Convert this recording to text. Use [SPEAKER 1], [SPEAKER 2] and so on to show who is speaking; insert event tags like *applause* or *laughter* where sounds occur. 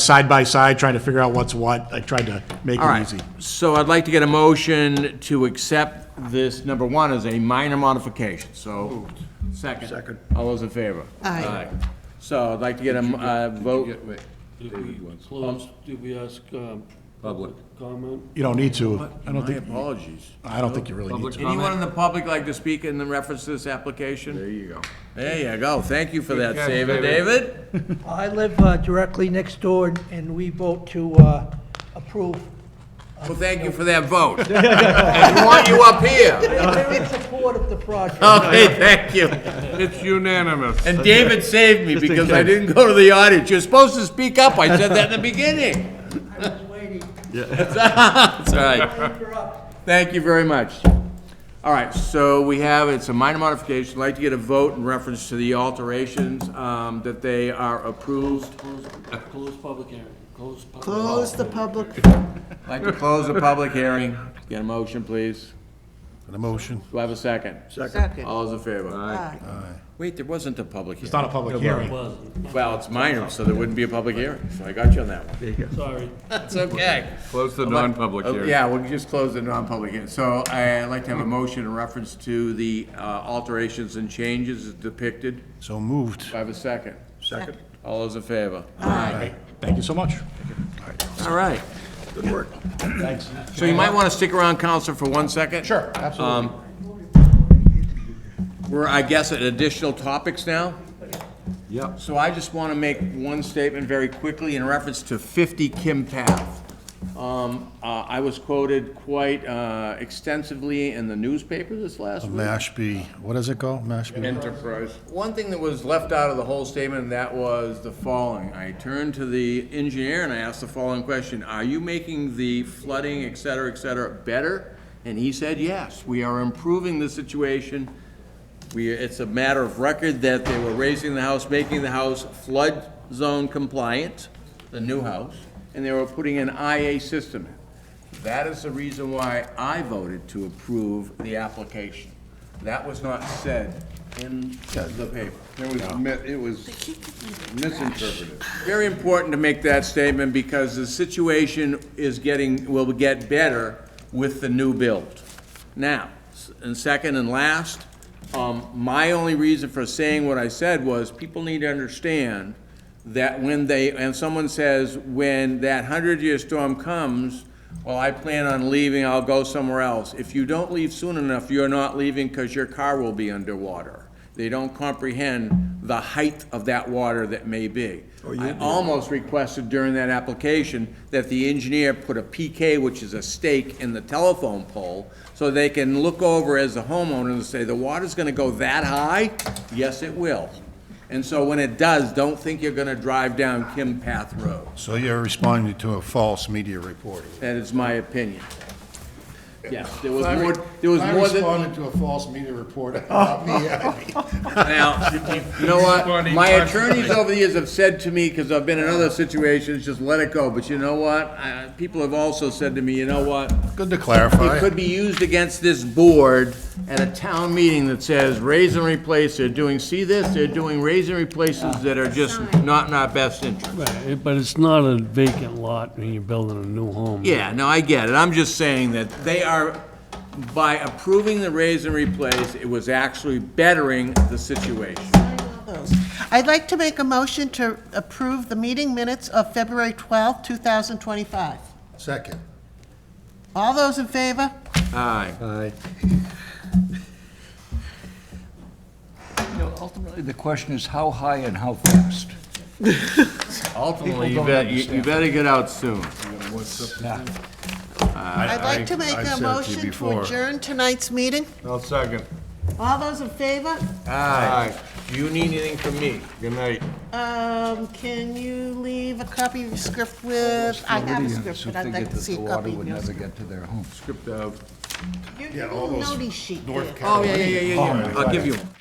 [SPEAKER 1] side by side, trying to figure out what's what. I tried to make
[SPEAKER 2] All
[SPEAKER 1] it
[SPEAKER 2] right,
[SPEAKER 1] easy.
[SPEAKER 2] so I'd like to get a motion to accept this, number one, as a minor modification, so. Second. Second. All those in favor?
[SPEAKER 3] Aye.
[SPEAKER 2] So I'd like to get a m- uh, vote,
[SPEAKER 4] Get- wait,
[SPEAKER 5] Did we close, did we ask, um,
[SPEAKER 4] Public.
[SPEAKER 5] comment?
[SPEAKER 1] You don't need to. I don't
[SPEAKER 2] my
[SPEAKER 1] think,
[SPEAKER 2] apologies.
[SPEAKER 1] I don't think you really need to.
[SPEAKER 2] Anyone in the public like to speak in the reference to this application? There you go. There you go, thank you for that,
[SPEAKER 4] catch,
[SPEAKER 2] David.
[SPEAKER 4] David.
[SPEAKER 2] David?
[SPEAKER 6] I live uh, directly next door, and we vote to uh, approve.
[SPEAKER 2] Well, thank you for that vote. *laughs* And we want you up here.
[SPEAKER 6] They're in support of the project.
[SPEAKER 2] Okay, *laughs* thank you.
[SPEAKER 4] It's unanimous.
[SPEAKER 2] And David saved me because I didn't go to the audience. You're supposed to speak up. I said that in the beginning.
[SPEAKER 6] I was waiting.
[SPEAKER 2] *laughs* That's all right.
[SPEAKER 6] Interrupt.
[SPEAKER 2] Thank you very much. All right, so we have, it's a minor modification, I'd like to get a vote in reference to the alterations, um, that they are approved.
[SPEAKER 5] Close, close public hearing, close public.
[SPEAKER 3] Close the public,
[SPEAKER 2] I'd like to close the public hearing. Get a motion, please.
[SPEAKER 1] An emotion.
[SPEAKER 2] Do I have a second?
[SPEAKER 3] second.
[SPEAKER 2] All those in favor?
[SPEAKER 3] Aye.
[SPEAKER 2] Wait, there wasn't a public hearing.
[SPEAKER 1] It's not a public hearing.
[SPEAKER 5] Wasn't,
[SPEAKER 2] Well, it's minor, so there wouldn't be a public hearing, so I got you on that one.
[SPEAKER 5] sorry.
[SPEAKER 2] That's okay.
[SPEAKER 4] Close the non-public
[SPEAKER 2] Oh,
[SPEAKER 4] hearing.
[SPEAKER 2] Yeah, we'll just close the non-public hearing. So I- I'd like to have a motion in reference to the uh, alterations and changes as depicted.
[SPEAKER 1] So moved.
[SPEAKER 2] Do I have a second? Second. All those in favor?
[SPEAKER 1] All right. Thank you so much.
[SPEAKER 2] All right. Good work. Thanks. So you might want to stick around, Counselor, for one second? Um,
[SPEAKER 1] Sure, absolutely.
[SPEAKER 2] We're, I guess, at additional topics now?
[SPEAKER 4] Yep.
[SPEAKER 2] So I just want to make one statement very quickly in reference to 50 Kim Path. Um, uh, I was quoted quite uh, extensively in the newspaper this last week.
[SPEAKER 1] Mashpee, what does it called? Mashpee?
[SPEAKER 2] Enterprise. One thing that was left out of the whole statement, and that was the following. I turned to the engineer and I asked the following question, are you making the flooding, et cetera, et cetera, better? And he said, yes, we are improving the situation. We, it's a matter of record that they were raising the house, making the house flood zone compliant, the new house, and they were putting an IA system in. That is the reason why I voted to approve the application. That was not said in the paper.
[SPEAKER 7] There was, mi- it was misinterpreted.
[SPEAKER 2] Very important to make that statement because the situation is getting, will get better with the new build. Now, s- and second and last, um, my only reason for saying what I said was people need to understand that when they, and someone says, when that hundred-year storm comes, well, I plan on leaving, I'll go somewhere else. If you don't leave soon enough, you're not leaving because your car will be underwater. They don't comprehend the height of that water that may be.
[SPEAKER 8] Oh,
[SPEAKER 2] I almost requested during that application that the engineer put a PK, which is a stake, in the telephone pole, so they can look over as a homeowner and say, the water's gonna go that high? Yes, it will. And so when it does, don't think you're gonna drive down Kim Path Road.
[SPEAKER 8] So you're responding to a false media report?
[SPEAKER 2] That is my opinion. Yes, there was
[SPEAKER 8] I
[SPEAKER 2] more, there was more than.
[SPEAKER 8] responded to a false media report about me.
[SPEAKER 2] Now, you know what?
[SPEAKER 4] Funny
[SPEAKER 2] My
[SPEAKER 4] question.
[SPEAKER 2] attorneys over the years have said to me, because I've been in other situations, just let it go. But you know what? I- People have also said to me, you know what?
[SPEAKER 8] Good to
[SPEAKER 2] It
[SPEAKER 8] clarify.
[SPEAKER 2] could be used against this board at a town meeting that says raise and replace, they're doing, see this, they're doing raise and replaces that are just not in our best interest.
[SPEAKER 5] Right, But it's not a vacant lot when you're building a new home.
[SPEAKER 2] Yeah, no, I get it. I'm just saying that they are, by approving the raise and replace, it was actually bettering the situation.
[SPEAKER 3] I'd like to make a motion to approve the meeting minutes of February twelfth, two 2025.
[SPEAKER 8] Second.
[SPEAKER 3] All those in favor?
[SPEAKER 2] Aye.
[SPEAKER 9] You know, ultimately, the question is how high and how fast?
[SPEAKER 2] Ultimately, you
[SPEAKER 9] People don't
[SPEAKER 2] bet, you- you
[SPEAKER 9] understand.
[SPEAKER 2] better get out soon.
[SPEAKER 3] I'd like to make
[SPEAKER 8] I
[SPEAKER 3] a
[SPEAKER 8] said to you
[SPEAKER 3] motion to
[SPEAKER 8] before.
[SPEAKER 3] adjourn tonight's meeting.
[SPEAKER 4] I'll second.
[SPEAKER 3] All those in favor?
[SPEAKER 2] Aye. Do you need anything from me?
[SPEAKER 4] Good night.
[SPEAKER 3] Um, can you leave a copy of your script with, I have a script, but I'd like to see a copy of
[SPEAKER 9] would never
[SPEAKER 3] yours.
[SPEAKER 9] get to their homes.
[SPEAKER 2] Script of.
[SPEAKER 3] Your your little notey sheet there.
[SPEAKER 2] Oh, yeah, yeah, yeah, yeah, yeah. I'll give you one.